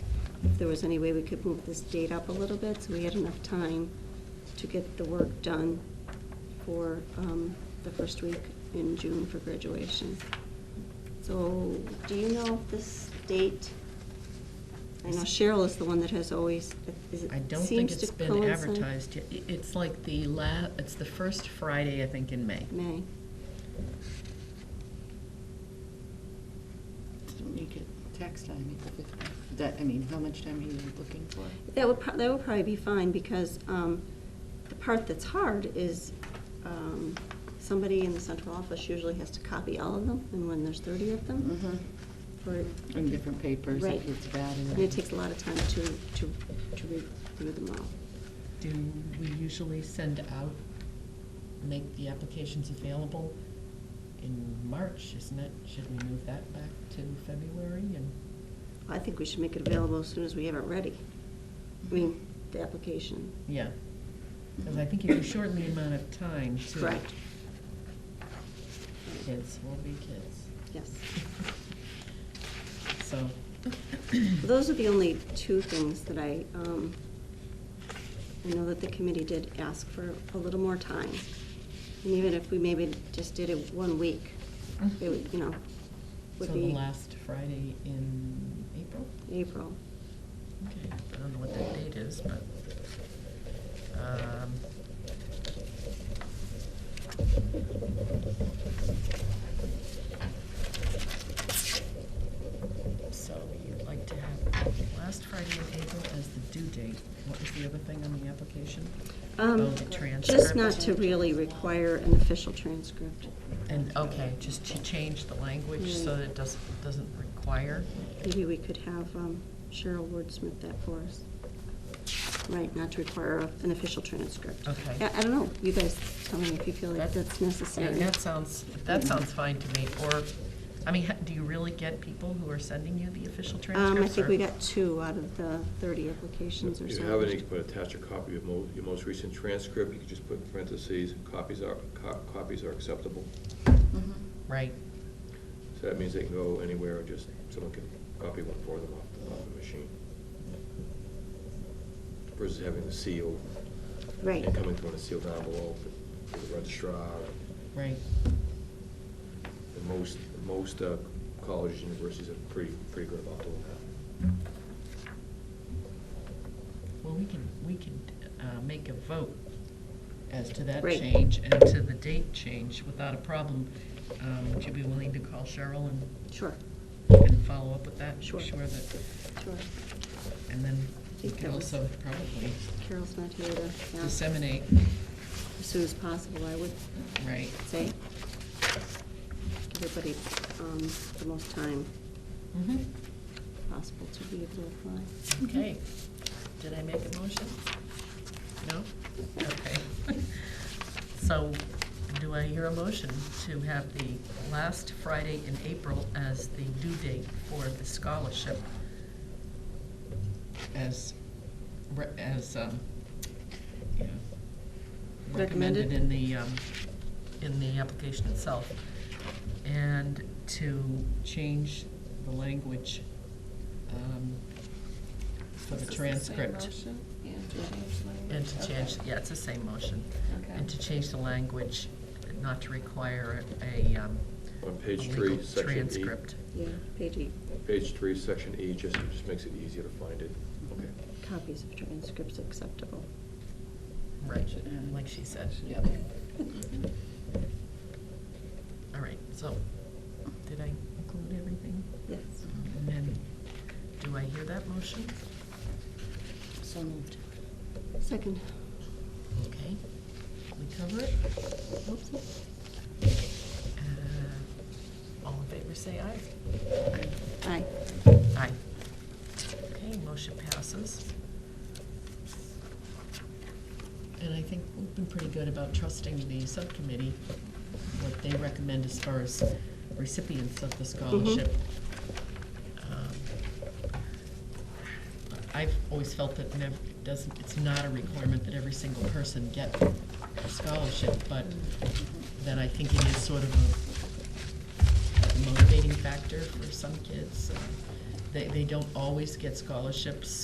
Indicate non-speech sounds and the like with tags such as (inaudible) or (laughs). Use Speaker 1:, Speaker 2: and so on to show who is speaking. Speaker 1: if there was any way we could move this date up a little bit, so we had enough time to get the work done for um, the first week in June for graduation. So, do you know if this date, I know Cheryl is the one that has always, is it,
Speaker 2: I don't think
Speaker 1: seems to
Speaker 2: it's been
Speaker 1: coincide-
Speaker 2: advertised yet. I- It's like the la, it's the first Friday, I think, in May.
Speaker 1: May.
Speaker 3: Don't make it tax time, at the 15th. That, I mean, how much time are you looking for?
Speaker 1: That would, prob- that would probably be fine, because um, the part that's hard is um, somebody in the central office usually has to copy all of them, and when there's 30 of them,
Speaker 3: Mm-hmm.
Speaker 1: for,
Speaker 3: In different papers,
Speaker 1: Right.
Speaker 3: if it's bad.
Speaker 1: and it takes a lot of time to, to, to review them all.
Speaker 2: Do we usually send out, make the applications available in March, isn't it? Should we move that back to February and?
Speaker 1: I think we should make it available as soon as we have it ready. I mean, the application.
Speaker 2: Yeah, because I think if you shorten the amount of time to.
Speaker 1: Correct.
Speaker 2: Kids will be
Speaker 1: (laughs)
Speaker 2: kids,
Speaker 1: Yes.
Speaker 2: so.
Speaker 1: Those are the only two things that I, um, I know that the committee did ask for a little more time. And even if we maybe just did it one week, it would, you know, would
Speaker 2: Mm-hmm. So the
Speaker 1: be
Speaker 2: last Friday in April?
Speaker 1: April.
Speaker 2: Okay, I don't know what that date is, but, um. So you'd like to have last Friday in April as the due date. What was the other thing on the application? Oh,
Speaker 1: Um,
Speaker 2: the
Speaker 1: Just
Speaker 2: transcript.
Speaker 1: not to really require an official transcript.
Speaker 2: And, okay, just to change the language so that it doesn't, doesn't require.
Speaker 1: Maybe we could have um, Cheryl wordsmith that for us. Right, not to require a- an official transcript.
Speaker 2: Okay.
Speaker 1: I I don't know, you guys tell me if you feel like
Speaker 2: That-
Speaker 1: that's
Speaker 2: Yeah,
Speaker 1: necessary.
Speaker 2: that sounds, that sounds fine to me, or, I mean, ha- do you really get people who are sending you the official transcripts?
Speaker 1: Um, I think
Speaker 2: or-
Speaker 1: we got two out of the thirty applications or
Speaker 4: If
Speaker 1: so.
Speaker 4: you have any, you can attach a copy of mo- your most recent transcript, you can just put in parentheses, copies are, co- copies are acceptable.
Speaker 1: Mm-hmm.
Speaker 2: Right,
Speaker 4: So that means they can go anywhere, or just someone can copy one for them off the, off the machine. Versus having the seal,
Speaker 1: Right,
Speaker 4: and coming through on a sealed envelope, for the registrar.
Speaker 2: right,
Speaker 4: And most, most uh, colleges, universities are pretty, pretty good about doing that.
Speaker 2: well, we can, we can, uh, make a vote as to that
Speaker 1: Right.
Speaker 2: change and to the date change without a problem. Um, would you be willing to call Cheryl and,
Speaker 1: sure,
Speaker 2: and follow up with that?
Speaker 1: Sure.
Speaker 2: Sure that,
Speaker 1: sure.
Speaker 2: and then we
Speaker 1: think
Speaker 2: could
Speaker 1: that was-
Speaker 2: also probably
Speaker 1: Carol's not here to, yeah, as
Speaker 2: disseminate,
Speaker 1: soon as possible, I would
Speaker 2: right,
Speaker 1: say. Give everybody, um, the most time
Speaker 2: mhm,
Speaker 1: Mm-hmm. possible to be able to apply.
Speaker 2: okay. Did I make a motion? No? Okay. So do I hear a motion to have the last Friday in April as the due date for the scholarship as, re- as, um, you know, recommended
Speaker 1: Recommended.
Speaker 2: in the, um, in the application itself? And to change the language um, for the transcript.
Speaker 3: And to change
Speaker 2: And to change, yeah, it's the same motion. And to change the language, not to require a, um,
Speaker 4: On
Speaker 2: a
Speaker 4: page
Speaker 2: legal
Speaker 4: three, section E.
Speaker 2: transcript.
Speaker 1: Yeah, page eight,
Speaker 4: Page three, section E, just, just makes it easier to find it. Okay.
Speaker 1: copies of transcripts acceptable.
Speaker 2: Right, like she said.
Speaker 3: Yep.
Speaker 2: All right, so, did I include everything?
Speaker 1: Yes.
Speaker 2: And then, do I hear that motion?
Speaker 3: So moved.
Speaker 1: Second,
Speaker 2: Okay, we cover it.
Speaker 1: oopsie.
Speaker 2: Uh, All in favor, say aye.
Speaker 1: Aye.
Speaker 2: Aye. Okay, motion passes. And I think we've been pretty good about trusting the subcommittee, what they recommend as far as recipients of the scholarship. Um, I've always felt that never, it doesn't, it's not a requirement that every single person get a scholarship, but that I think it is sort of a motivating factor for some kids, uh, They, they don't always get scholarships,